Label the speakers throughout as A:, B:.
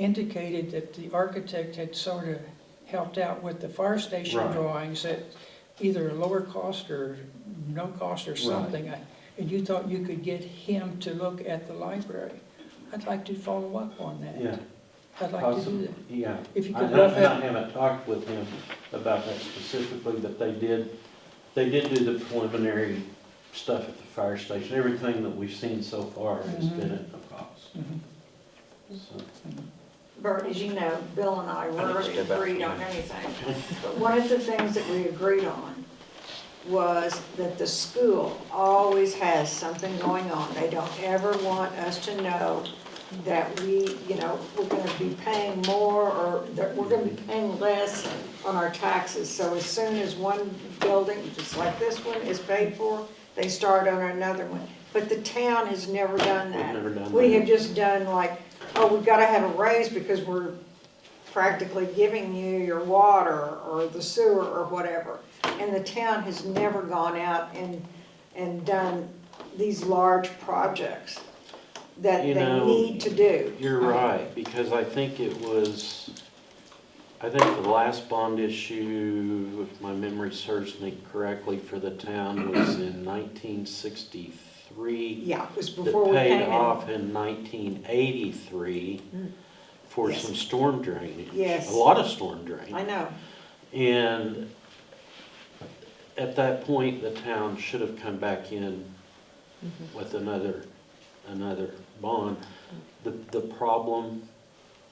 A: indicated that the architect had sort of helped out with the fire station
B: Right.
A: drawings at either a lower cost or no cost or
B: Right.
A: something. I- And you thought you could get him to look at the library. I'd like to follow up on that.
B: Yeah,
A: I'd like to do
B: possibly,
A: that.
B: yeah.
A: If you
B: I
A: could
B: ha-
A: rough
B: and I
A: out-
B: haven't talked with him about that specifically, but they did, they did do the preliminary stuff at the fire station. Everything that we've seen so far has
A: Mhm.
B: been at no cost,
A: Mhm.
B: so.
C: Bert, as you know, Bill and I
D: I
C: were
D: think it's about-
C: agreed on anything. But one of the things that we agreed on was that the school always has something going on. They don't ever want us to know that we, you know, we're gonna be paying more or that we're gonna be paying less on our taxes. So as soon as one building, just like this one, is paid for, they start on another one. But the town has never done that.
B: We've never done
C: We
B: that.
C: have just done like, oh, we've gotta have a raise because we're practically giving you your water or the sewer or whatever. And the town has never gone out and, and done these large projects that
B: You
C: they
B: know,
C: need to do.
B: You're right, because I think it was, I think the last bond issue, if my memory serves me correctly, for the town was in nineteen sixty-three.
C: Yeah, it was before
B: That
C: we
B: paid
C: came in.
B: off in nineteen eighty-three
C: Mm.
B: for
C: Yes.
B: some storm drainage.
C: Yes.
B: A lot of storm drain.
C: I know,
B: And at that point, the town should have come back in with another, another bond. The, the problem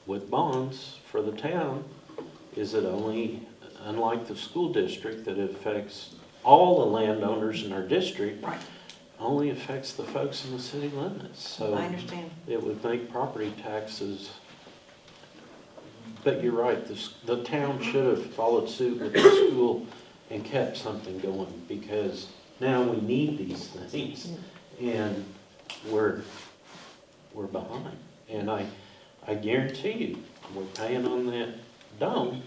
B: with bonds for the town is it only, unlike the school district that affects all the landowners in our district,
C: right,
B: only affects the folks in the city limits, so
C: I understand.
B: it would make property taxes. But you're right, the, s- the town should have followed suit with the school and kept something going, because now we need these things, and we're, we're behind. And I, I guarantee you, we're paying on that dome,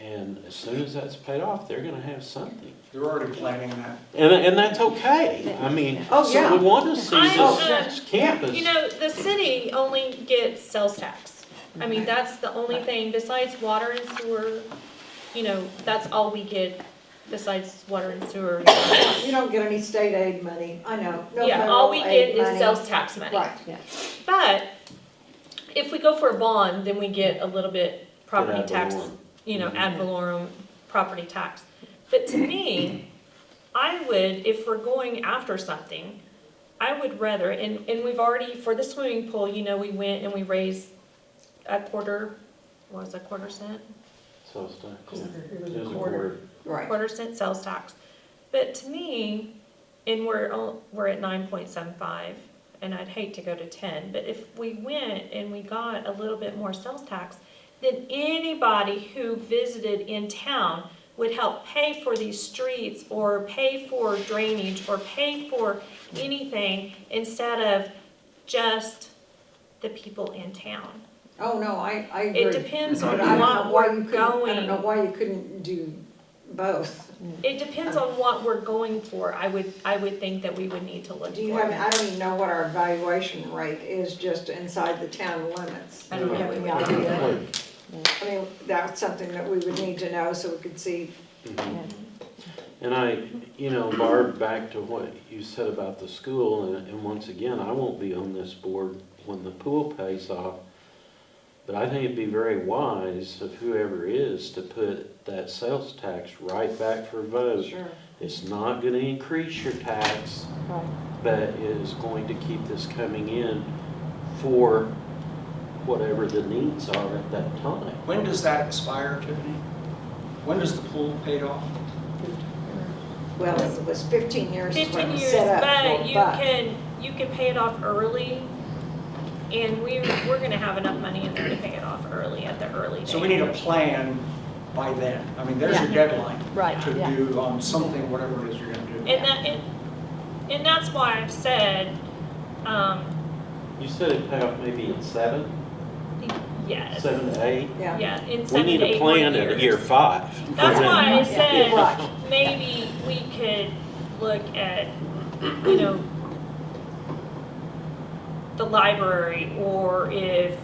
B: and as soon as that's paid off, they're gonna have something.
E: They're already planning that.
B: And, and that's okay, I mean,
C: Oh,
B: so
C: yeah.
B: we want to see
F: I'm,
C: Oh,
F: uh,
B: this campus.
F: You know, the city only gets sales tax. I mean, that's the only thing besides water and sewer, you know, that's all we get besides water and sewer.
C: You don't get any state aid money, I know, no
F: Yeah,
C: federal
F: all we
C: aid
F: get
C: money.
F: is sales tax money.
C: Right,
F: But if we go for a bond, then we get a little bit property
B: Ad
F: tax,
B: valorem. Mm-hmm.
F: you know, ad valorem property tax. But to me, I would, if we're going after something, I would rather, and, and we've already, for the swimming pool, you know, we went and we raised a quarter, what was it, quarter cent?
B: So it's not- yeah.
A: It was
B: It
A: a
B: was a
A: quarter.
B: quarter.
C: right,
F: quarter cent sales tax. But to me, and we're, al- we're at nine point seven five, and I'd hate to go to ten, but if we went and we got a little bit more sales tax, then anybody who visited in town would help pay for these streets or pay for drainage or pay for anything instead of just the people in town.
C: oh, no, I, I agree.
F: It depends on
C: But I don't
F: what
C: know why
F: we're
C: you couldn't, I don't
F: going
C: know why you couldn't do both.
F: It depends on what we're going for. I would, I would think that we would need to look for.
C: Do you have, I don't even know what our valuation rate is just inside the town limits.
F: I don't
C: Do you
F: know.
C: have any
F: Yeah.
C: idea?
B: Quarter.
C: I mean, that's something that we would need to know so we could see,
B: Mm-hmm. And I, you know, Barb, back to what you said about the school, and, and once again, I won't be on this board when the pool pays off. But I think it'd be very wise of whoever is to put that sales tax right back for vote.
C: sure.
B: It's not gonna increase your tax, but it is going to keep this coming in for whatever the needs are at that time.
E: When does that expire, Tiffany? When does the pool paid off?
C: Well, it was fifteen years is what it
F: Fifteen
C: was
F: years,
C: set up for,
F: but you can, you can pay it off early, and we, we're gonna have enough money in there to pay it off early at the early date.
E: So we need a plan by then. I mean, there's your deadline
G: Right,
E: to
G: yeah.
E: do on something, whatever it is you're gonna do.
F: And that, and, and that's why I've said, um,
B: You said it paid off maybe in seven,
F: yes,
B: seven to eight?
C: Yeah,
F: yeah, in
B: We
F: seven
B: need
F: to
B: a
F: eight more
B: plan at year
F: years.
B: five. for
F: That's
B: them.
F: why I
C: Yeah,
F: said,
C: right.
F: maybe we could look at, you know, the library, or if